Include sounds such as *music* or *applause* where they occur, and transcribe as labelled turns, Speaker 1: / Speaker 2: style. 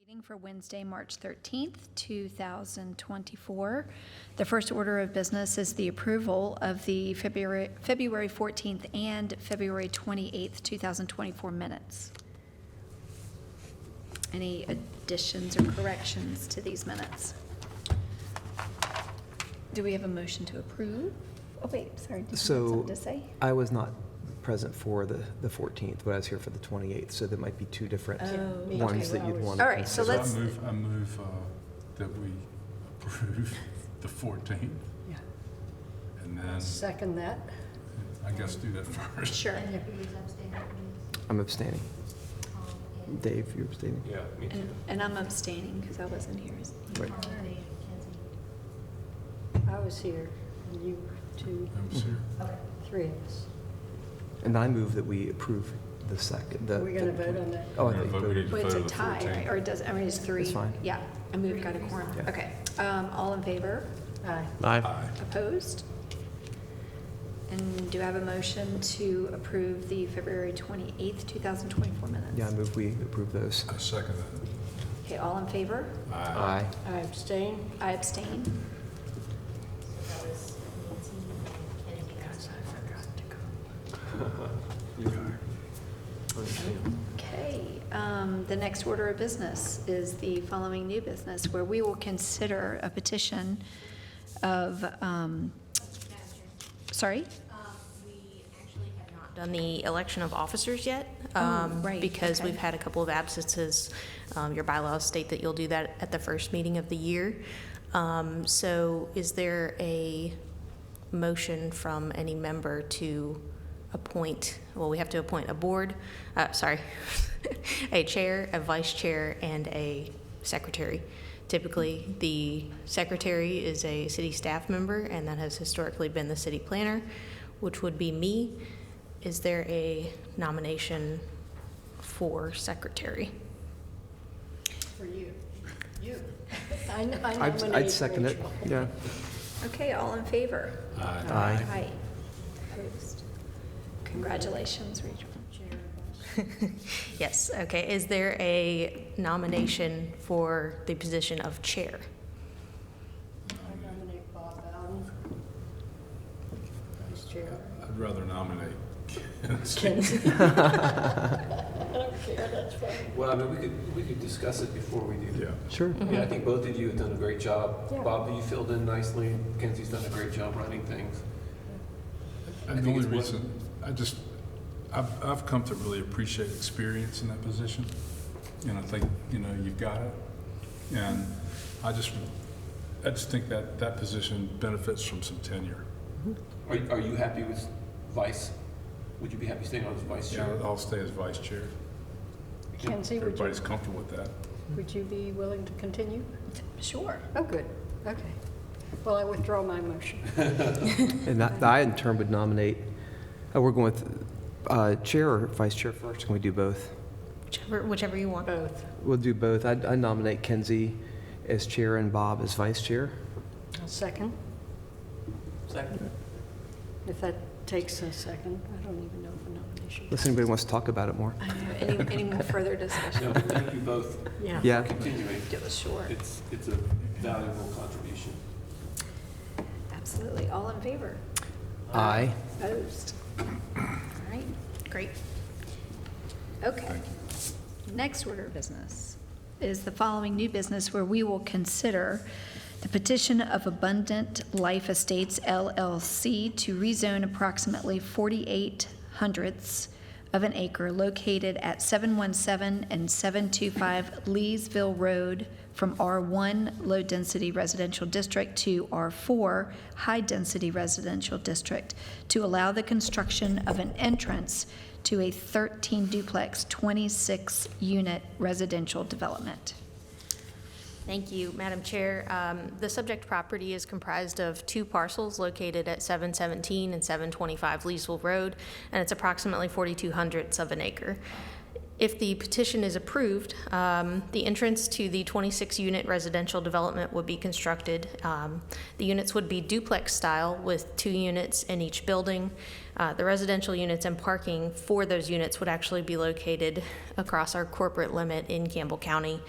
Speaker 1: Meeting for Wednesday, March 13th, 2024. The first order of business is the approval of the February February 14th and February 28th, 2024 minutes. Any additions or corrections to these minutes? Do we have a motion to approve? Oh, wait, sorry, did you have
Speaker 2: So
Speaker 1: something to say?
Speaker 2: I was not present for the, the 14th, but I was here for the 28th, so there might be two different
Speaker 1: Oh, okay.
Speaker 2: ones that you'd want to
Speaker 1: All right, so
Speaker 2: consider.
Speaker 3: So I
Speaker 1: let's-
Speaker 3: move, I move uh, that we approve *laughs* the 14th,
Speaker 4: Yeah,
Speaker 3: and then,
Speaker 4: second that.
Speaker 3: I guess do that *laughs* first.
Speaker 1: Sure.
Speaker 2: I'm abstaining. Dave, you're abstaining?
Speaker 3: Yeah, me
Speaker 1: And- And I'm abstaining because I wasn't here.
Speaker 2: Right.
Speaker 4: I was here, and you two,
Speaker 3: I'm sure.
Speaker 4: three of us.
Speaker 2: Mm-hmm. And I move that we approve the second, the.
Speaker 4: We're gonna
Speaker 2: the-
Speaker 4: vote on that?
Speaker 2: Oh, I
Speaker 3: We're
Speaker 2: thought you
Speaker 3: gonna vote. We
Speaker 2: voted.
Speaker 3: need to
Speaker 1: Well, it's a
Speaker 3: vote on the
Speaker 1: tie, right?
Speaker 3: 14th.
Speaker 1: Or it does, I mean, it's three.
Speaker 2: fine.
Speaker 1: Yeah, I mean, we've got a quorum.
Speaker 2: Yeah.
Speaker 1: Okay. Um, All in favor?
Speaker 4: Aye.
Speaker 3: Aye.
Speaker 1: Opposed? And do I have a motion to approve the February 28th, 2024 minutes?
Speaker 2: Yeah, I move we approve those.
Speaker 3: I second
Speaker 1: Okay, all in favor?
Speaker 3: that.
Speaker 2: Aye.
Speaker 4: I abstain.
Speaker 1: I abstain. Okay, um, the next order of business is the following new business, where we will consider a petition of, um, sorry?
Speaker 5: Uh, We actually have not Done the election of officers yet.
Speaker 1: Oh,
Speaker 5: um,
Speaker 1: right,
Speaker 5: Because
Speaker 1: okay.
Speaker 5: we've had a couple of absences. Um, Your bylaws state that you'll do that at the first meeting of the year. Um, So is there a motion from any member to appoint, well, we have to appoint a board, uh, sorry, *laughs* a chair, a vice chair, and a secretary. Typically, the secretary is a city staff member, and that has historically been the city planner, which would be me. Is there a nomination for secretary?
Speaker 4: For you. You. I n- I
Speaker 2: I'd-
Speaker 4: nominate
Speaker 2: I'd second it,
Speaker 4: Rachel.
Speaker 2: yeah.
Speaker 1: Okay, all in favor?
Speaker 2: Aye.
Speaker 1: Aye. Opposed? Congratulations, Rachel.
Speaker 5: Yes, okay. Is there a nomination for the position of chair?
Speaker 4: I nominate Bob Bowden. Vice chair.
Speaker 3: I'd rather nominate
Speaker 4: Ken.
Speaker 3: Ken.
Speaker 4: I don't care, that's fine.
Speaker 6: Well, I mean, we could, we could discuss it before we do
Speaker 3: Yeah.
Speaker 6: that.
Speaker 2: Sure.
Speaker 6: I mean, I think both of you have done a great job.
Speaker 4: Yeah.
Speaker 6: Bob, you filled in nicely. Kenzie's done a great job running things. I
Speaker 3: And the
Speaker 6: think
Speaker 3: only
Speaker 6: it's one-
Speaker 3: reason, I just, I've, I've come to really appreciate experience in that position. And I think, you know, you've got it. And I just, I just think that, that position benefits from some tenure.
Speaker 6: Are, are you happy with vice? Would you be happy staying on as vice
Speaker 3: Yeah,
Speaker 6: chair?
Speaker 3: I'll stay as vice chair.
Speaker 4: Kenzie, would you,
Speaker 3: Everybody's comfortable with that.
Speaker 4: would you be willing to continue?
Speaker 1: Sure.
Speaker 4: Oh, good, okay. Well, I withdraw my motion.
Speaker 2: And that, I in turn would nominate, uh, we're going with uh, chair or vice chair first, can we do both?
Speaker 5: Whichever, whichever you want.
Speaker 4: Both.
Speaker 2: We'll do both. I'd- I nominate Kenzie as chair and Bob as vice chair.
Speaker 4: I'll second,
Speaker 6: Second.
Speaker 4: if that takes a second. I don't even know if a nomination.
Speaker 2: Unless anybody wants to talk about it more.
Speaker 1: I know. Any, any more further discussion?
Speaker 6: No, but thank you both
Speaker 4: Yeah.
Speaker 2: Yeah,
Speaker 6: for continuing.
Speaker 1: It was short.
Speaker 6: It's, it's a valuable contribution.
Speaker 1: Absolutely. All in favor?
Speaker 2: aye.
Speaker 1: Opposed? All right,
Speaker 5: Great.
Speaker 1: okay. Next order of business is the following new business where we will consider the petition of Abundant Life Estates LLC to rezone approximately 48 hundredths of an acre located at 717 and 725 Leesville Road from R1 Low Density Residential District to R4 High Density Residential District to allow the construction of an entrance to a 13 duplex, 26 unit residential development.
Speaker 5: Thank you, Madam Chair. Um, The subject property is comprised of two parcels located at 717 and 725 Leesville Road, and it's approximately 42 hundredths of an acre. If the petition is approved, um, the entrance to the 26-unit residential development would be constructed. Um, The units would be duplex-style with two units in each building. Uh, The residential units and parking for those units would actually be located across our corporate limit in Campbell County.